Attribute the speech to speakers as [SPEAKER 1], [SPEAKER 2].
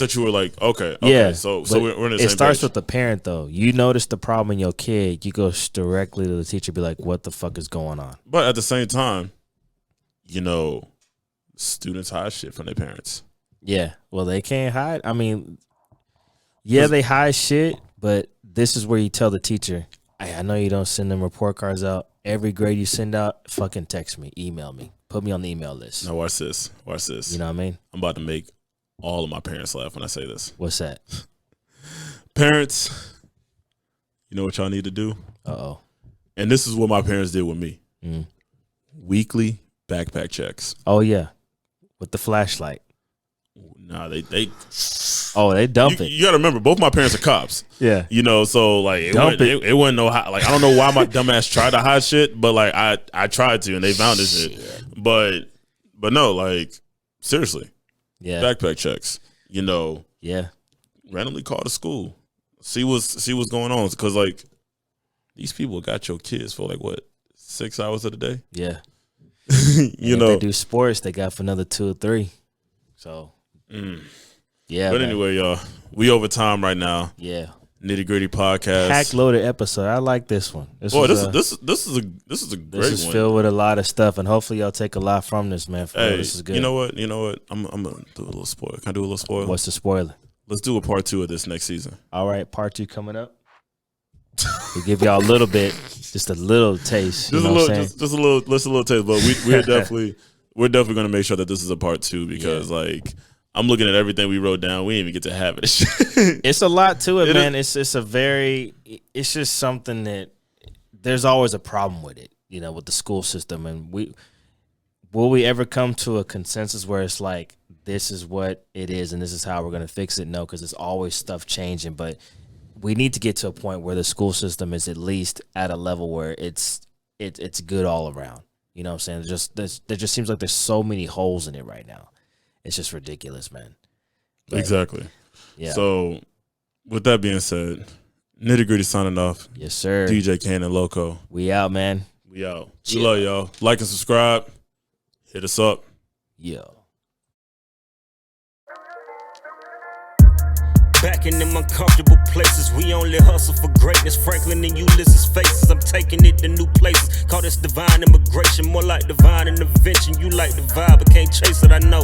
[SPEAKER 1] that you were like, okay, okay yeah. So so
[SPEAKER 2] but
[SPEAKER 1] we're, we're in the
[SPEAKER 2] it
[SPEAKER 1] same
[SPEAKER 2] starts
[SPEAKER 1] page.
[SPEAKER 2] with the parent though. You notice the problem in your kid, you go s- directly to the teacher, be like, "What the fuck is going on?"
[SPEAKER 1] but at the same time, you know, students hide shit from their parents.
[SPEAKER 2] Yeah. Well, they can't hide. I mean, yeah, they hide shit, but this is where you tell the teacher, "Hey, I know you don't send them report cards out. Every grade you send out, fucking text me, email me, put me on the email list."
[SPEAKER 1] Now watch this. Watch this.
[SPEAKER 2] You know what I mean?
[SPEAKER 1] I'm about to make all of my parents laugh when I say this.
[SPEAKER 2] What's that?
[SPEAKER 1] Parents, you know what y'all need to do?
[SPEAKER 2] Uh oh.
[SPEAKER 1] And this is what my parents did with me.
[SPEAKER 2] Mm.
[SPEAKER 1] Weekly backpack checks.
[SPEAKER 2] Oh yeah, with the flashlight.
[SPEAKER 1] Nah, they they
[SPEAKER 2] Oh, they dump
[SPEAKER 1] you,
[SPEAKER 2] it.
[SPEAKER 1] you gotta remember, both my parents are cops.
[SPEAKER 2] yeah.
[SPEAKER 1] You know, so like it
[SPEAKER 2] Dump
[SPEAKER 1] wasn't, it. It, wasn't no hot, like I don't know why my dumbass tried to hide shit, but like I I tried to and they found this shit. But but no, like seriously,
[SPEAKER 2] Yeah.
[SPEAKER 1] backpack checks. You know,
[SPEAKER 2] yeah.
[SPEAKER 1] randomly call the school, see what's see what's going on, because like these people got your kids for like what six hours of the day.
[SPEAKER 2] Yeah.
[SPEAKER 1] you
[SPEAKER 2] if
[SPEAKER 1] know,
[SPEAKER 2] they do sports, they got for another two or three. So,
[SPEAKER 1] Mm.
[SPEAKER 2] yeah.
[SPEAKER 1] but
[SPEAKER 2] man.
[SPEAKER 1] anyway, y'all, we over time right now.
[SPEAKER 2] yeah.
[SPEAKER 1] Nitty gritty podcast.
[SPEAKER 2] Pack loaded episode. I like this one. This
[SPEAKER 1] Boy,
[SPEAKER 2] was,
[SPEAKER 1] this
[SPEAKER 2] uh,
[SPEAKER 1] this this is a this is a
[SPEAKER 2] this
[SPEAKER 1] great
[SPEAKER 2] is
[SPEAKER 1] one.
[SPEAKER 2] filled with a lot of stuff, and hopefully y'all take a lot from this, man. For real,
[SPEAKER 1] Hey,
[SPEAKER 2] this is good.
[SPEAKER 1] you know what? You know what? I'm I'm gonna do a little spoil. Can I do a little spoil?
[SPEAKER 2] What's the spoiler?
[SPEAKER 1] Let's do a part two of this next season.
[SPEAKER 2] All right, part two coming up. we give y'all a little bit, just a little taste. You
[SPEAKER 1] Just a
[SPEAKER 2] know
[SPEAKER 1] little,
[SPEAKER 2] what I'm saying?
[SPEAKER 1] just, just a little, just a little taste. But we we're definitely we're definitely gonna make sure that this is a part two because like I'm looking at everything we wrote down. We didn't even get to have it.
[SPEAKER 2] it's a lot to it,
[SPEAKER 1] It is-
[SPEAKER 2] man. It's it's a very it's just something that there's always a problem with it, you know, with the school system and we will we ever come to a consensus where it's like this is what it is and this is how we're going to fix it? No, cuz it's always stuff changing, but we need to get to a point where the school system is at least at a level where it's it, it's good all around. You know what I'm saying? There's just there's, there just seems like there's so many holes in it right now. It's just ridiculous, man. But,
[SPEAKER 1] exactly.
[SPEAKER 2] Yeah.
[SPEAKER 1] So with that being said, nitty gritty signing off.
[SPEAKER 2] yes, sir.
[SPEAKER 1] DJ Kane and Loco.
[SPEAKER 2] We out, man.
[SPEAKER 1] We out. We love y'all. Like and subscribe. Hit us up.
[SPEAKER 2] Yeah.
[SPEAKER 3] Back in them uncomfortable places, we only hustle for greatness. Franklin and Ulysses' faces, I'm taking it to new places. Call this divine immigration, more like divine intervention. You like the vibe, but can't chase it, I know.